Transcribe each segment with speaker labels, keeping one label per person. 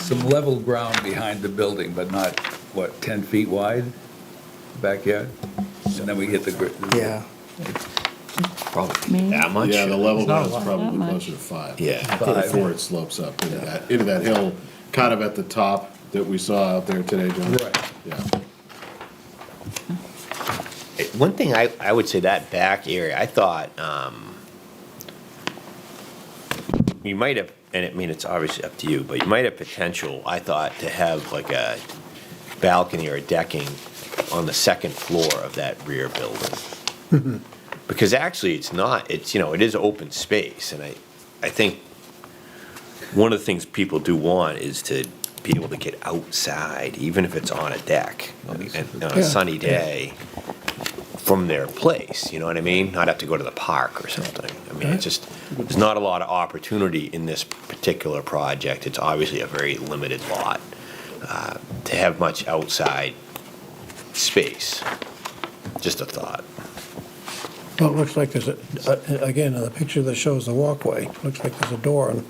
Speaker 1: some level ground behind the building, but not, what, 10 feet wide backyard? And then we get the, gr-
Speaker 2: Yeah. Probably
Speaker 3: Maybe.
Speaker 2: that much?
Speaker 4: Yeah, the level
Speaker 5: not a
Speaker 4: ground's
Speaker 5: lot.
Speaker 4: probably
Speaker 3: Not
Speaker 4: closer to five.
Speaker 2: Yeah.
Speaker 4: Before it slopes up into that, into that hill, kind of at the top that we saw out there today, John.
Speaker 1: Right.
Speaker 4: Yeah.
Speaker 2: One thing I, I would say that back area, I thought, um, you might have, and I mean, it's obviously up to you, but you might have potential, I thought, to have like a balcony or a decking on the second floor of that rear building. Because actually, it's not, it's, you know, it is open space, and I, I think one of the things people do want is to be able to get outside, even if it's on a deck, and on a sunny day from their place, you know what I mean? Not have to go to the park or something. I mean, it's just, there's not a lot of opportunity in this particular project. It's obviously a very limited lot uh, to have much outside space. Just a thought.
Speaker 5: Well, it looks like there's, a a- again, in the picture that shows the walkway, looks like there's a door in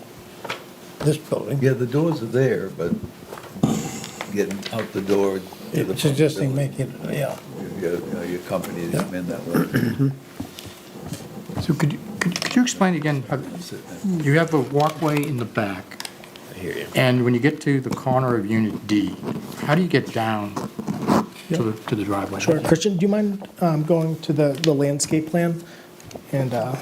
Speaker 5: this building.
Speaker 1: yeah, the doors are there, but getting out the door. to the front
Speaker 5: It's Suggesting
Speaker 1: building,
Speaker 5: making, yeah.
Speaker 1: Your your- your company is in that way.
Speaker 6: So could you, could could you explain again, how- you have a walkway in the back,
Speaker 2: I hear you.
Speaker 6: and when you get to the corner of Unit D, how do you get down to the, to the driveway?
Speaker 7: Sure. Christian, do you mind um, going to the the landscape plan? And, uh,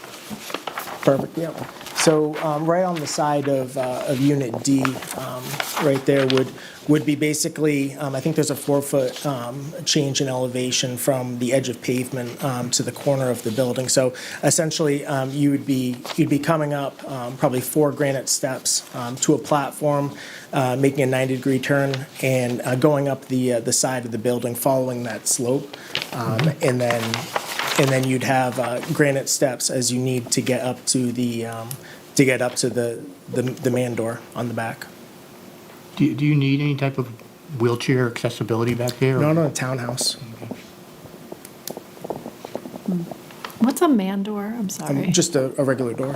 Speaker 7: perfect, yeah. So um, right on the side of uh, of Unit D, um, right there would, would be basically, um, I think there's a four-foot um, change in elevation from the edge of pavement um, to the corner of the building. So essentially, um, you would be, you'd be coming up um, probably four granite steps um, to a platform, uh, making a 90-degree turn, and uh, going up the, uh, the side of the building, following that slope. Um, And then and then you'd have uh, granite steps as you need to get up to the, um, to get up to the, the- the man door on the back.
Speaker 6: Do you, do you need any type of wheelchair accessibility back there?
Speaker 4: Mm-hmm.
Speaker 7: Not on a townhouse. Um,
Speaker 3: What's a mandor? I'm
Speaker 7: Um,
Speaker 3: sorry.
Speaker 7: Just a, a regular door,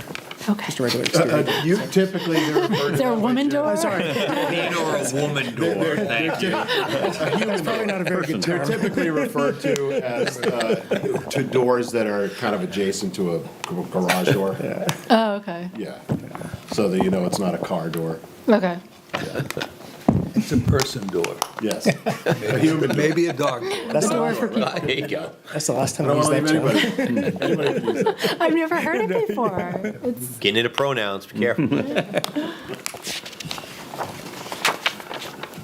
Speaker 3: Okay.
Speaker 7: just a
Speaker 4: Uh,
Speaker 7: regular Oh, exterior. door.
Speaker 4: You typically, they're referred
Speaker 3: Is there a woman door?
Speaker 2: a woman door, thank you.
Speaker 7: That's probably not a very good
Speaker 4: They're
Speaker 7: term.
Speaker 4: typically referred to as, uh, to doors that are kind of adjacent to a gar- garage door.
Speaker 3: Oh, okay,
Speaker 4: Yeah. So that you know it's not a car door.
Speaker 3: okay.
Speaker 1: It's a person door.
Speaker 4: Yes.
Speaker 1: Maybe a dog door.
Speaker 7: That's
Speaker 3: The
Speaker 7: the
Speaker 3: door for people.
Speaker 2: There you go.
Speaker 7: that's the last time
Speaker 4: I
Speaker 7: I
Speaker 4: don't
Speaker 7: used
Speaker 4: want to
Speaker 7: that
Speaker 4: leave
Speaker 7: term.
Speaker 4: anybody, anybody confused.
Speaker 3: I've never heard it before. It's,
Speaker 2: Getting into pronouns, be careful.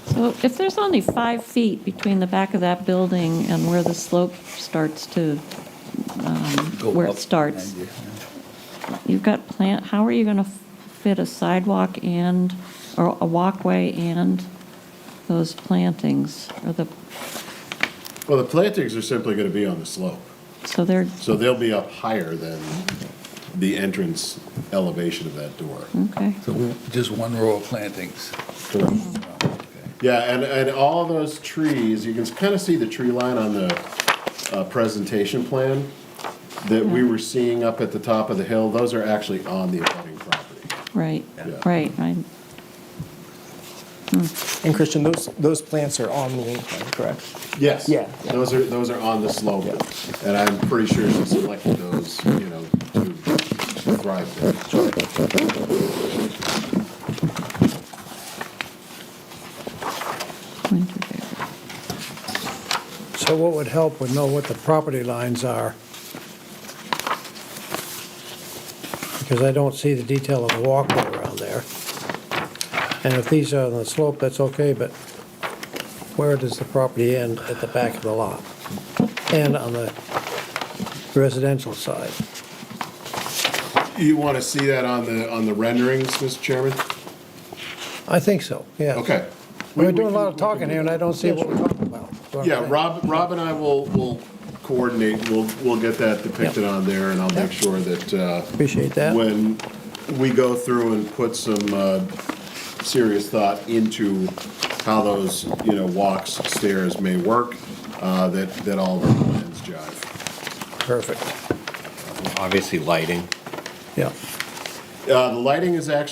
Speaker 8: So if there's only five feet between the back of that building and where the slope starts to,
Speaker 1: Go
Speaker 8: Where it
Speaker 1: up
Speaker 8: starts.
Speaker 1: behind you.
Speaker 8: you've got plant, how are you going to fit a sidewalk and, or a walkway and those plantings? Or the,
Speaker 4: Well, the plantings are simply going to be on the slope,
Speaker 8: so they're,
Speaker 4: so they'll be up higher than the entrance elevation of that door.
Speaker 8: okay.
Speaker 1: So just one row of plantings.
Speaker 4: Yeah, and, and all those trees, you can kind of see the tree line on the uh, presentation plan that we were seeing up at the top of the hill, those are actually on the abutting property.
Speaker 8: Right,
Speaker 4: Yeah.
Speaker 8: right, right.
Speaker 7: And Christian, those, those plants are on the incline, correct?
Speaker 4: Yes.
Speaker 7: Yeah.
Speaker 4: Those are, those are on the slope, and I'm pretty sure she selected those, you know, to thrive there.
Speaker 8: Winter Berry.
Speaker 5: So what would help would know what the property lines are. Because I don't see the detail of the walkway around there. And if these are on the slope, that's okay, but where does the property end at the back of the lot? And on the residential side?
Speaker 4: You want to see that on the, on the renderings, Mr. Chairman?
Speaker 5: I think so, yeah.
Speaker 4: Okay.
Speaker 5: We're doing a lot of talking here, and I don't see what we're talking about.
Speaker 4: Yeah, Rob, Rob and I will, will coordinate, we'll, we'll get that depicted on there, and I'll make sure that, uh,
Speaker 5: Appreciate that.
Speaker 4: when we go through and put some, uh, serious thought into how those, you know, walks, stairs may work, uh, that, that all of our plans jive.
Speaker 5: Perfect,
Speaker 2: Obviously, lighting.
Speaker 5: yeah.
Speaker 4: Uh, the lighting is actually